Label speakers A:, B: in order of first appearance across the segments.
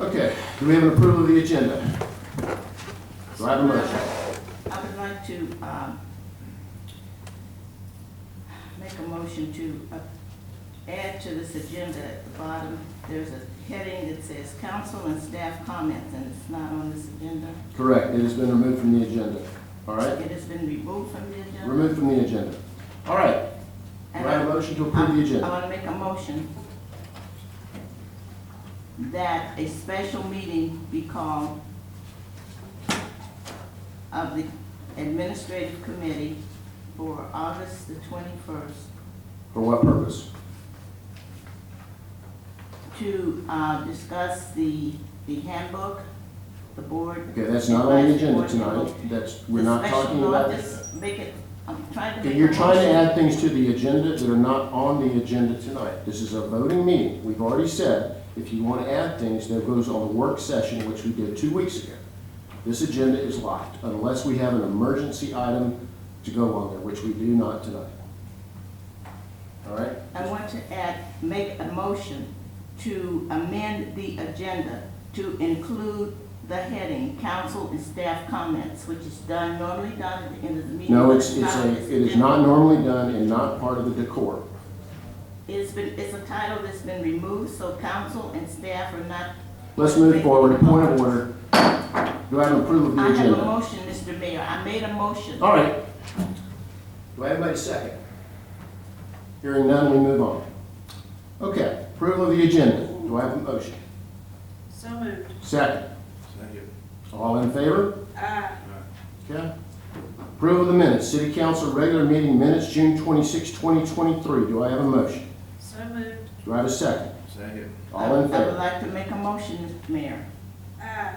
A: Okay, do we have an approval of the agenda? Do I have a motion?
B: I would like to, um, make a motion to uh, add to this agenda at the bottom, there's a heading that says council and staff comments, and it's not on this agenda.
A: Correct, it has been removed from the agenda. All right,
B: It has been removed from the agenda.
A: removed from the agenda. All right, do
B: And
A: I have a motion to approve the
B: I
A: agenda?
B: want to make a motion that a special meeting be called of the administrative committee for August the twenty-first
A: For what purpose?
B: to uh, discuss the, the handbook, the board.
A: Okay, that's not on the agenda
B: Board handbook.
A: tonight, that's, we're not
B: The
A: talking
B: special law,
A: about.
B: just Make it, I'm trying to.
A: Okay,
B: make a
A: you're trying to
B: motion.
A: add things to the agenda that are not on the agenda tonight. This is a voting meeting. We've already said, if you want to add things, that goes on the work session, which we did two weeks ago. This agenda is locked unless we have an emergency item to go on there, which we do not tonight. All right?
B: I want to add, make a motion to amend the agenda to include the heading, council and staff comments, which is done, normally done at the end of the meeting.
A: No,
B: but
A: it's, it's
B: not
A: a,
B: on this
A: it is
B: agenda.
A: not normally done and not part of the decor.
B: It's been, it's a title that's been removed, so council and staff are not.
A: Let's move forward. Point of order. Do I have approval of the
B: I have a
A: agenda?
B: motion, Mr. Mayor, I made a motion.
A: All right. Do I have anybody second? Hearing none, we move on. Okay, approval of the agenda. Do I have a motion?
C: So moved.
A: Second.
D: Second.
A: All in favor?
C: Aye.
A: Okay. Approval of the minutes. City Council regular meeting minutes, June 26, 2023. Do I have a motion?
C: So moved.
A: Do I have a second?
D: Second.
A: All in
B: I would
A: favor?
B: like to make a motion, Mr. Mayor.
C: Aye.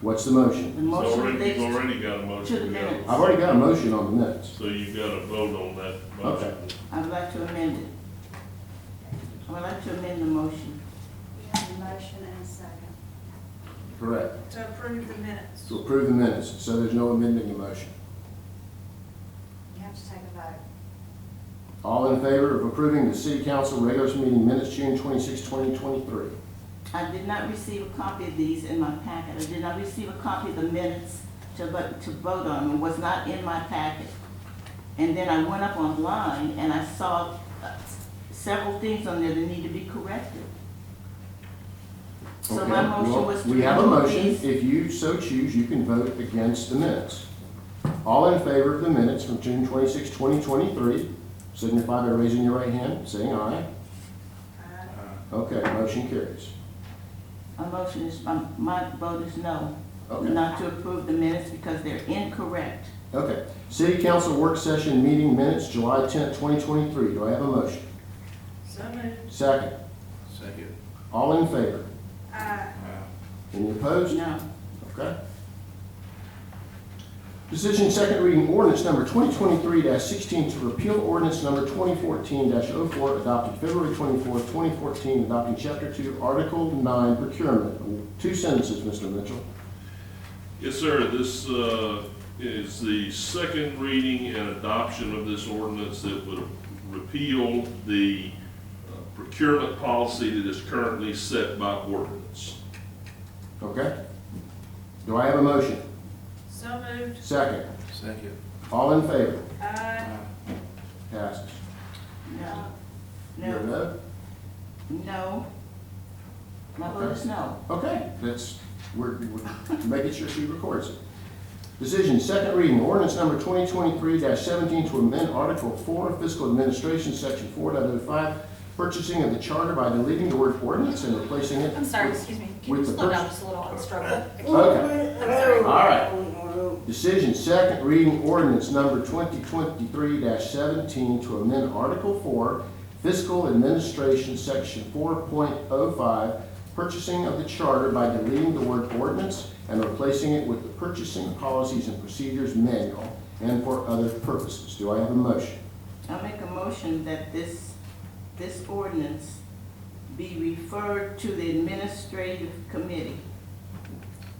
A: What's the motion?
B: The
E: It's
B: motion
E: already, it's
B: relates-
E: already got a
B: To the
E: motion.
B: minutes.
A: I've already got a motion on the minutes.
E: So you've got to vote on that motion.
A: Okay.
B: I would like to amend it. I would like to amend the motion.
F: We have a motion and a second.
A: Correct.
C: To approve the minutes.
A: To approve the minutes, so there's no amending the motion.
F: You have to take a vote.
A: All in favor of approving the City Council regular meeting minutes, June 26, 2023?
B: I did not receive a copy of these in my packet. I did not receive a copy of the minutes to vote, to vote on. It was not in my packet. And then I went up online and I saw uh, several things on there that need to be corrected. So my
A: Okay, well,
B: motion was to.
A: We have a
B: remove
A: motion.
B: these.
A: If you so choose, you can vote against the minutes. All in favor of the minutes from June 26, 2023, signify by raising your right hand, saying aye.
C: Aye.
A: Okay, motion carries.
B: A motion is, um, my vote is no,
A: Okay,
B: not to approve the minutes because they're incorrect.
A: okay. City Council work session meeting minutes, July 10, 2023. Do I have a motion?
C: So moved.
A: Second.
D: Second.
A: All in favor?
C: Aye.
A: Any opposed?
B: No.
A: Okay. Decision second reading ordinance number 2023-16 to repeal ordinance number 2014-04 adopted February 24, 2014, adopting Chapter 2, Article 9 procurement. Two sentences, Mr. Mitchell.
E: Yes, sir, this uh, is the second reading and adoption of this ordinance that would repeal the uh, procurement policy that is currently set by ordinance.
A: Okay? Do I have a motion?
C: So moved.
A: Second.
D: Second.
A: All in favor?
C: Aye.
A: Passes.
B: No,
A: You're a
B: no, no. My vote is no.
A: Okay, that's, we're, we're making sure she records it. Decision, second reading, ordinance number 2023-17 to amend Article 4 of Fiscal Administration, Section 4.05, purchasing of the charter by deleting the word ordinance and replacing it.
G: I'm sorry, excuse me, can you
A: With the
G: slow
A: first-
G: down just a little, I struggle.
A: Okay,
G: I'm sorry.
A: all right. Decision, second reading, ordinance number 2023-17 to amend Article 4 Fiscal Administration, Section 4.05, purchasing of the charter by deleting the word ordinance and replacing it with the Purchasing Policies and Procedures Manual and for other purposes. Do I have a motion?
B: I make a motion that this, this ordinance be referred to the administrative committee.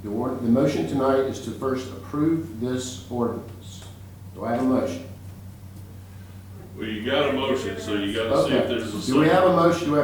A: The or- the motion tonight is to first approve this ordinance. Do I have a motion?
E: Well, you got a motion, so you got to see if
A: Okay.
E: there's a second.
A: Do we have a motion? Do we have